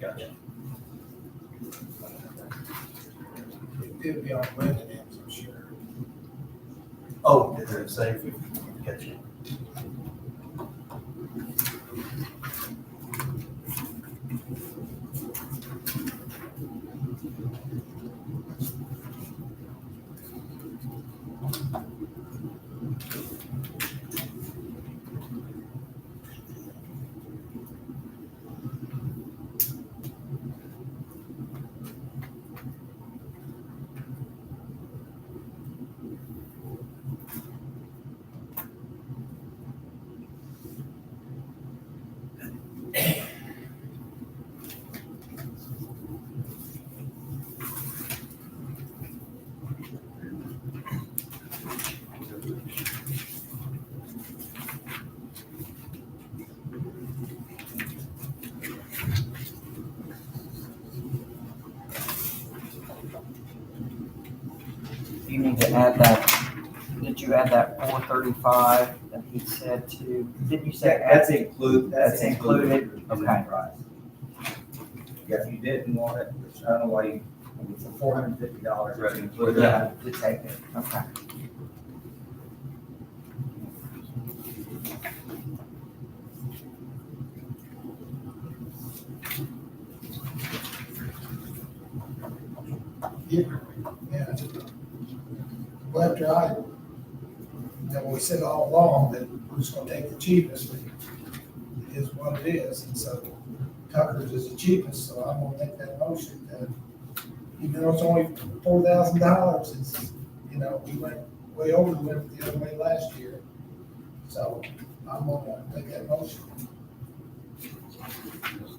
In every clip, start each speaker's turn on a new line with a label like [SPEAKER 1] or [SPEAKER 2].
[SPEAKER 1] Gotcha.
[SPEAKER 2] It'd be on residents, I'm sure.
[SPEAKER 1] Oh, did it say? Gotcha.
[SPEAKER 3] You need to add that, did you add that four thirty-five that he said to, didn't you say?
[SPEAKER 4] That's included, that's
[SPEAKER 3] That's included,
[SPEAKER 4] included.
[SPEAKER 3] okay.
[SPEAKER 4] Right. Yeah, if you didn't want it, which I don't know why you, I mean, for four hundred and fifty dollars, right, included
[SPEAKER 3] Yeah.
[SPEAKER 4] that, to take it.
[SPEAKER 3] Okay.
[SPEAKER 2] Yeah, yeah. Well, after I, that we said all along that we're just gonna take the cheapest, but it is what it is, and so Tucker's is the cheapest, so I'm gonna make that motion that even though it's only four thousand dollars, it's, you know, we went way over, we went the other way last year. So I'm gonna make that motion.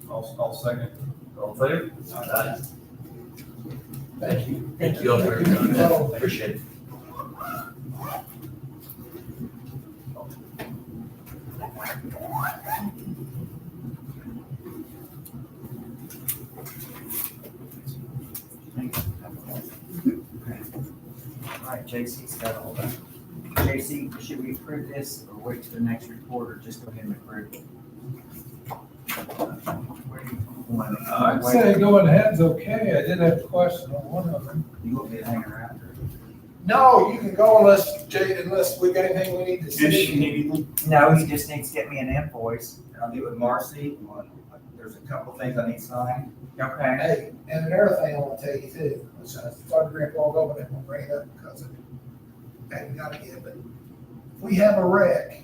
[SPEAKER 1] I'll, I'll second. All in favor? Aye.
[SPEAKER 2] Thank you.
[SPEAKER 1] Thank you all for your time.
[SPEAKER 2] No,
[SPEAKER 1] Appreciate it.
[SPEAKER 3] All right, JC's got all that. JC, should we approve this or wait till the next report or just go ahead and approve? it? Where do you want it?
[SPEAKER 2] I say going ahead's okay, I did have a question on one of them.
[SPEAKER 4] You won't be hanging around.
[SPEAKER 2] No, you can go unless, Jay, unless we got anything we need to see.
[SPEAKER 3] No, he just needs to get me an invoice.
[SPEAKER 4] And I'll get with Marcy, on- there's a couple things I need signed.
[SPEAKER 3] Okay.
[SPEAKER 2] Hey, and another thing I want to tell you too, which I started to rip all over, and I'm gonna bring it up because it hadn't got it yet, but if we have a wreck,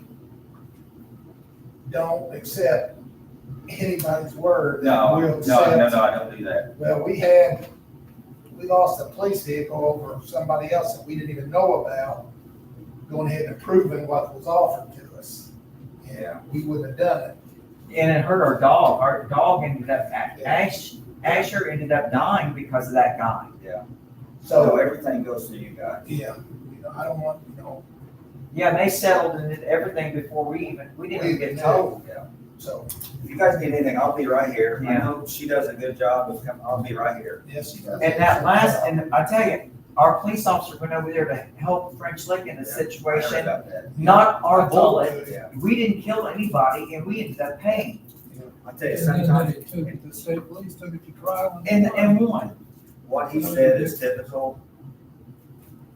[SPEAKER 2] don't accept anybody's word. that
[SPEAKER 4] No,
[SPEAKER 2] we'll
[SPEAKER 4] no,
[SPEAKER 2] accept-
[SPEAKER 4] no, no, I don't do that.
[SPEAKER 2] Well, we had, we lost a police vehicle over somebody else that we didn't even know about, going ahead and approving what was offered to us.
[SPEAKER 4] Yeah.
[SPEAKER 2] We wouldn't have done it.
[SPEAKER 3] And it hurt our dog. Our dog ended up, Ash, Asher ended up dying because of that guy.
[SPEAKER 4] So
[SPEAKER 2] So,
[SPEAKER 4] everything goes to you guys.
[SPEAKER 2] yeah, you know, I don't want, you know,
[SPEAKER 3] Yeah, and they settled and did everything before we even, we didn't even get told.
[SPEAKER 4] Yeah.
[SPEAKER 2] so,
[SPEAKER 4] If you guys need anything, I'll be right here. I
[SPEAKER 3] Yeah.
[SPEAKER 4] know she does a good job of coming, I'll be right here.
[SPEAKER 2] yes, you does.
[SPEAKER 3] And that last, and I tell you, our police officer went over there to help French Lick in the
[SPEAKER 4] Yeah.
[SPEAKER 3] situation,
[SPEAKER 4] About that.
[SPEAKER 3] not our bullet.
[SPEAKER 4] Yeah.
[SPEAKER 3] We didn't kill anybody and we ended up paying
[SPEAKER 4] I'll tell you, sometimes
[SPEAKER 2] the state police took it to trial.
[SPEAKER 3] and, and won.
[SPEAKER 4] what he said is typical.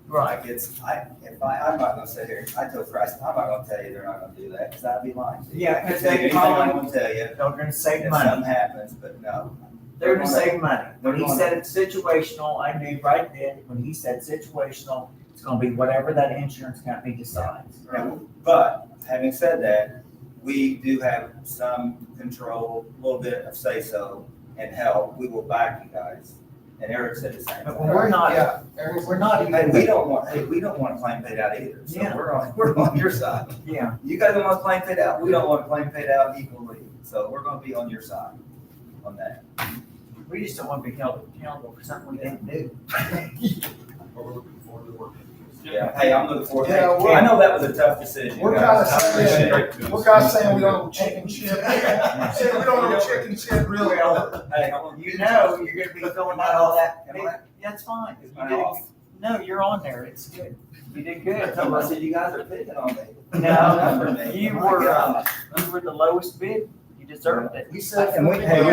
[SPEAKER 3] Right.
[SPEAKER 4] Like it's, I, if I, I'm not gonna sit here, I told Bryce, I'm not gonna tell you they're not gonna do that, because I'd be lying to you.
[SPEAKER 3] Yeah,
[SPEAKER 4] I can
[SPEAKER 3] 'cause
[SPEAKER 4] tell you
[SPEAKER 3] they
[SPEAKER 4] anything I
[SPEAKER 3] call
[SPEAKER 4] wanna tell you,
[SPEAKER 3] They're gonna save
[SPEAKER 4] if
[SPEAKER 3] money.
[SPEAKER 4] something happens, but no.
[SPEAKER 3] They're gonna save money. When he
[SPEAKER 4] They're
[SPEAKER 3] said it's situational, I knew right then, when he said situational, it's gonna be whatever that insurance company decides.
[SPEAKER 4] No, But having said that, we do have some control, a little bit of say-so and help. We will back you guys. And Eric said the same
[SPEAKER 3] But
[SPEAKER 4] thing.
[SPEAKER 3] when we're not,
[SPEAKER 2] Yeah. Eric's-
[SPEAKER 3] we're not
[SPEAKER 4] And we
[SPEAKER 3] even,
[SPEAKER 4] don't want, hey, we don't want a claim paid out either. So
[SPEAKER 3] Yeah.
[SPEAKER 4] we're on, we're on your side.
[SPEAKER 3] yeah,
[SPEAKER 4] You guys don't want a claim paid out, we don't want a claim paid out equally. So we're gonna be on your side on that.
[SPEAKER 3] we just don't wanna be held accountable for something we didn't do.
[SPEAKER 4] Yeah, hey, I'm looking forward to
[SPEAKER 2] Yeah,
[SPEAKER 4] it.
[SPEAKER 2] we're-
[SPEAKER 4] I know that was a tough decision,
[SPEAKER 2] We're
[SPEAKER 4] guys.
[SPEAKER 2] kinda
[SPEAKER 4] I appreciate it.
[SPEAKER 2] We're kind of saying we don't know chicken shit.
[SPEAKER 4] Yeah,
[SPEAKER 2] we don't know chicken shit really.
[SPEAKER 4] Hey, I'm gonna-
[SPEAKER 3] You know, you're gonna be filling out all that,
[SPEAKER 4] Am I-
[SPEAKER 3] that's fine.
[SPEAKER 4] Is
[SPEAKER 3] You
[SPEAKER 4] mine
[SPEAKER 3] did-
[SPEAKER 4] off?
[SPEAKER 3] No, you're on there, it's good. You did good.
[SPEAKER 4] I told him, I said, you guys are picking on me.
[SPEAKER 3] No,
[SPEAKER 4] Oh my
[SPEAKER 3] you were,
[SPEAKER 4] God.
[SPEAKER 3] uh, you were the lowest bid, you deserved it.
[SPEAKER 2] He said.
[SPEAKER 4] And we- hey, we